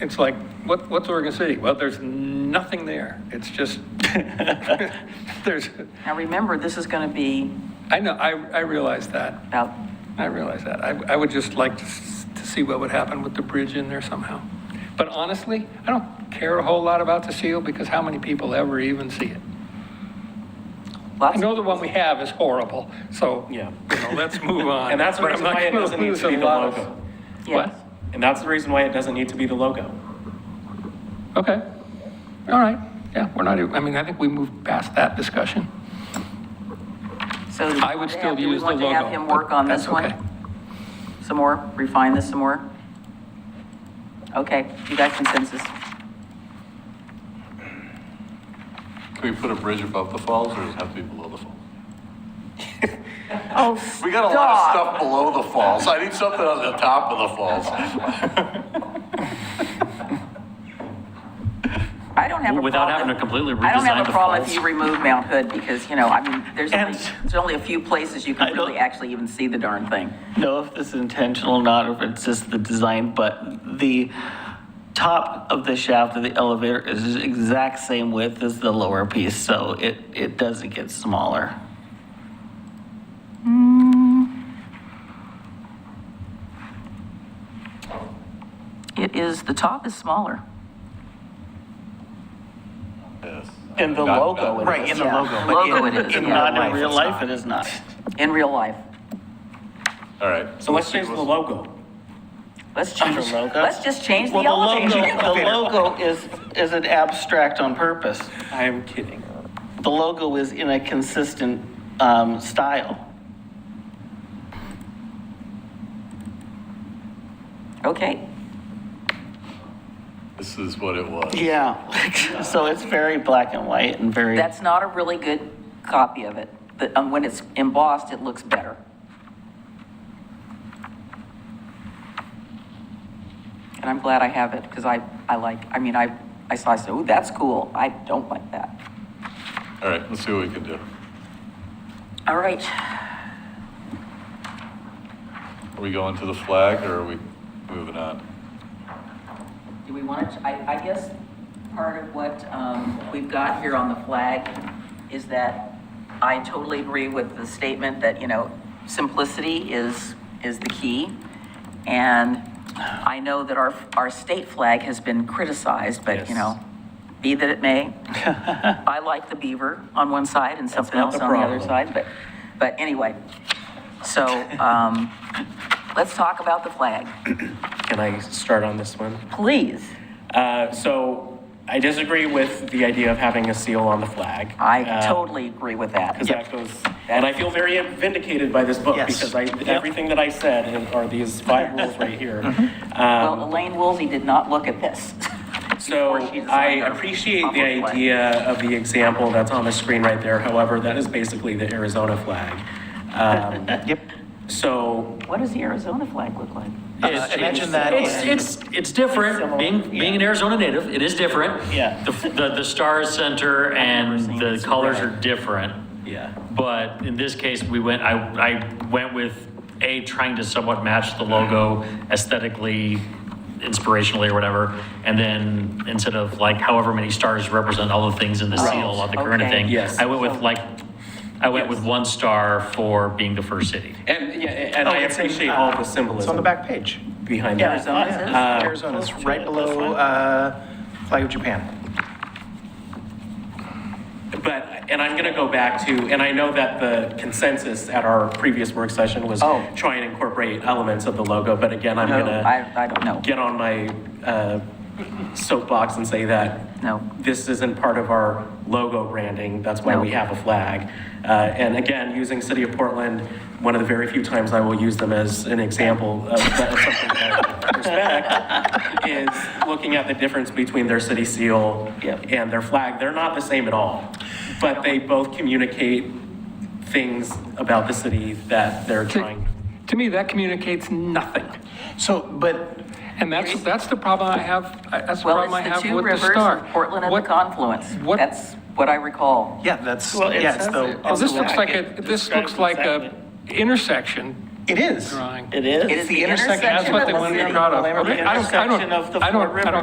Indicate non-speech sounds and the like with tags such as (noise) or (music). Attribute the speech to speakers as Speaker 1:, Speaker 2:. Speaker 1: it's like, what, what's Oregon City? Well, there's nothing there. It's just, (laughs) there's,
Speaker 2: Now, remember, this is going to be
Speaker 1: I know, I, I realize that.
Speaker 2: about,
Speaker 1: I realize that. I, I would just like to, s- to see what would happen with the bridge in there somehow. But honestly, I don't care a whole lot about the seal because how many people ever even see it? I
Speaker 2: lots,
Speaker 1: know the one we have is horrible, so, you
Speaker 3: Yeah.
Speaker 1: know,
Speaker 3: (laughs)
Speaker 1: let's move on.
Speaker 3: And that's the
Speaker 1: Uh, But I'm
Speaker 3: reason
Speaker 1: not
Speaker 3: why it
Speaker 1: gonna
Speaker 3: doesn't need
Speaker 1: lose
Speaker 3: to be
Speaker 1: a
Speaker 3: the
Speaker 1: lot of-
Speaker 3: logo.
Speaker 2: yes.
Speaker 3: And that's the reason why it doesn't need to be the logo.
Speaker 1: Okay, all right, yeah, we're not, even- I mean, I think we moved past that discussion.
Speaker 2: So
Speaker 1: I would still
Speaker 2: do we
Speaker 1: use the
Speaker 2: want to have
Speaker 1: logo,
Speaker 2: him
Speaker 1: but
Speaker 2: work on this
Speaker 1: that's
Speaker 2: one?
Speaker 1: okay.
Speaker 2: Some more, refine this some more? Okay, you got consensus.
Speaker 4: Can we put a bridge above the falls or does it have to be below the falls?
Speaker 2: Oh,
Speaker 4: We got a lot of stuff below the falls. I need something on the top of the falls.
Speaker 2: I don't have a problem.
Speaker 5: Without having to completely
Speaker 2: I don't
Speaker 5: redesign
Speaker 2: have a
Speaker 5: the
Speaker 2: problem if
Speaker 5: falls.
Speaker 2: you remove Mount Hood because, you know, I mean, there's only,
Speaker 5: And-
Speaker 2: there's only a few places you
Speaker 5: I
Speaker 2: can
Speaker 5: don't-
Speaker 2: really actually even see the darn thing.
Speaker 5: know if this is intentional or not, or if it's just the design, but the top of the shaft of the elevator is the exact same width as the lower piece, so it, it doesn't get smaller.
Speaker 2: It is, the top is smaller.
Speaker 3: And the
Speaker 4: Not-
Speaker 3: logo.
Speaker 4: not-
Speaker 3: it
Speaker 5: Right,
Speaker 3: is.
Speaker 5: in the
Speaker 2: Yeah.
Speaker 5: logo,
Speaker 2: Logo
Speaker 5: but
Speaker 2: it is,
Speaker 5: in, in
Speaker 2: yeah.
Speaker 5: not
Speaker 3: Life,
Speaker 5: in real
Speaker 3: it's
Speaker 5: life,
Speaker 3: not.
Speaker 5: it is not.
Speaker 2: In real life.
Speaker 4: All right.
Speaker 3: So let's change the logo.
Speaker 2: Let's change,
Speaker 5: logo?
Speaker 2: let's just change the
Speaker 5: Well, the
Speaker 2: elevator.
Speaker 5: logo, the logo is, is an abstract on purpose.
Speaker 3: I'm kidding.
Speaker 5: The logo is in a consistent, um, style.
Speaker 2: (laughs) Okay,
Speaker 4: This is what it was.
Speaker 5: Yeah, so it's very black and white and very.
Speaker 2: that's not a really good copy of it, but um, when it's embossed, it looks better. And I'm glad I have it, because I, I like, I mean, I, I saw, I said, ooh, that's cool, I don't like that.
Speaker 4: All right, let's see what we can do.
Speaker 2: All right,
Speaker 4: Are we going to the flag or are we moving on?
Speaker 2: do we want to, I, I guess part of what um, we've got here on the flag is that I totally agree with the statement that, you know, simplicity is, is the key. And I know that our, our state flag has been criticized, but, you
Speaker 3: Yes.
Speaker 2: know, be that it
Speaker 3: (laughs)
Speaker 2: may, I like the beaver on one side and something
Speaker 3: not
Speaker 2: else
Speaker 3: the
Speaker 2: on the other
Speaker 3: problem.
Speaker 2: side, but, but anyway. So,
Speaker 3: (laughs)
Speaker 2: um, let's talk about the flag,
Speaker 3: Can I start on this one?
Speaker 2: please.
Speaker 3: Uh, so I disagree with the idea of having a seal on the flag.
Speaker 2: I totally agree with that.
Speaker 3: Uh, Because that goes, and I feel very vindicated by this book
Speaker 5: Yes.
Speaker 3: because I, everything that I said is- are these five rules right
Speaker 2: (laughs)
Speaker 3: here.
Speaker 2: Mm-hmm. Well, Elaine Woolsey did not look at this. (laughs)
Speaker 3: So
Speaker 2: before she designed
Speaker 3: I
Speaker 2: her
Speaker 3: appreciate the
Speaker 2: Humboldt flag.
Speaker 3: idea of the example that's on the screen right there. However, that is basically the Arizona flag. Um,
Speaker 5: Yep.
Speaker 3: so
Speaker 2: What does the Arizona flag look like?
Speaker 5: Imagine that.
Speaker 6: It's, it's, it's different, being, being an Arizona native, it is different.
Speaker 5: Yeah.
Speaker 6: The, the, the star is center and
Speaker 2: seen
Speaker 6: the
Speaker 2: this.
Speaker 6: colors are different,
Speaker 3: yeah,
Speaker 6: but in this case, we went, I, I went with A, trying to somewhat match the logo aesthetically, inspirationally or whatever, and then instead of like however many stars represent all the things in the seal of the current
Speaker 2: okay.
Speaker 6: thing,
Speaker 3: Yes.
Speaker 6: I went with like, I went with
Speaker 3: Yes.
Speaker 6: one star for being the first city.
Speaker 3: and yeah, and I
Speaker 7: it's in,
Speaker 3: appreciate
Speaker 7: uh,
Speaker 3: all the symbolism
Speaker 7: It's on the back page.
Speaker 3: behind
Speaker 7: Yeah.
Speaker 3: that.
Speaker 2: Arizona says?
Speaker 3: Uh,
Speaker 7: Arizona, it's right
Speaker 3: This
Speaker 7: below
Speaker 3: one?
Speaker 7: uh, flag of Japan.
Speaker 3: But, and I'm going to go back to, and I know that the consensus at our previous work session was
Speaker 2: Oh.
Speaker 3: try and incorporate elements of the logo, but again, I'm
Speaker 2: No,
Speaker 3: going to
Speaker 2: I, I don't know.
Speaker 3: get on my uh, soapbox and say that
Speaker 2: No.
Speaker 3: this isn't part of our logo branding, that's why
Speaker 2: No.
Speaker 3: we have a flag. Uh, And again, using City of Portland, one of the very few times I will use them as an example of that is something that I respect, is looking at the difference between their city seal
Speaker 2: Yep.
Speaker 3: and their flag. They're not the same at all, but they both communicate things about the city that they're
Speaker 1: To
Speaker 3: trying.
Speaker 1: to me, that communicates nothing.
Speaker 7: So, but
Speaker 1: And that's, that's the problem I have, I- that's the
Speaker 2: Well,
Speaker 1: problem I
Speaker 2: it's the
Speaker 1: have
Speaker 2: two
Speaker 1: with the
Speaker 2: rivers,
Speaker 1: star.
Speaker 2: Portland and the
Speaker 1: What-
Speaker 2: confluence.
Speaker 1: what-
Speaker 2: That's what I recall.
Speaker 7: yeah, that's yeah, it's the.
Speaker 1: Oh,
Speaker 7: it's
Speaker 1: This
Speaker 7: the
Speaker 1: looks like
Speaker 7: flag.
Speaker 1: a, this looks
Speaker 3: describes
Speaker 1: like a
Speaker 3: exactly.
Speaker 1: intersection
Speaker 7: It is.
Speaker 1: drawing.
Speaker 5: It
Speaker 2: It
Speaker 5: is.
Speaker 2: is the intersection
Speaker 1: That's what
Speaker 2: of
Speaker 1: they
Speaker 2: the
Speaker 1: wanted to be
Speaker 2: city.
Speaker 1: proud of.
Speaker 5: The
Speaker 1: Okay, I don't- I don't-
Speaker 5: intersection of the
Speaker 1: I don't-
Speaker 5: four
Speaker 1: I don't
Speaker 5: rivers.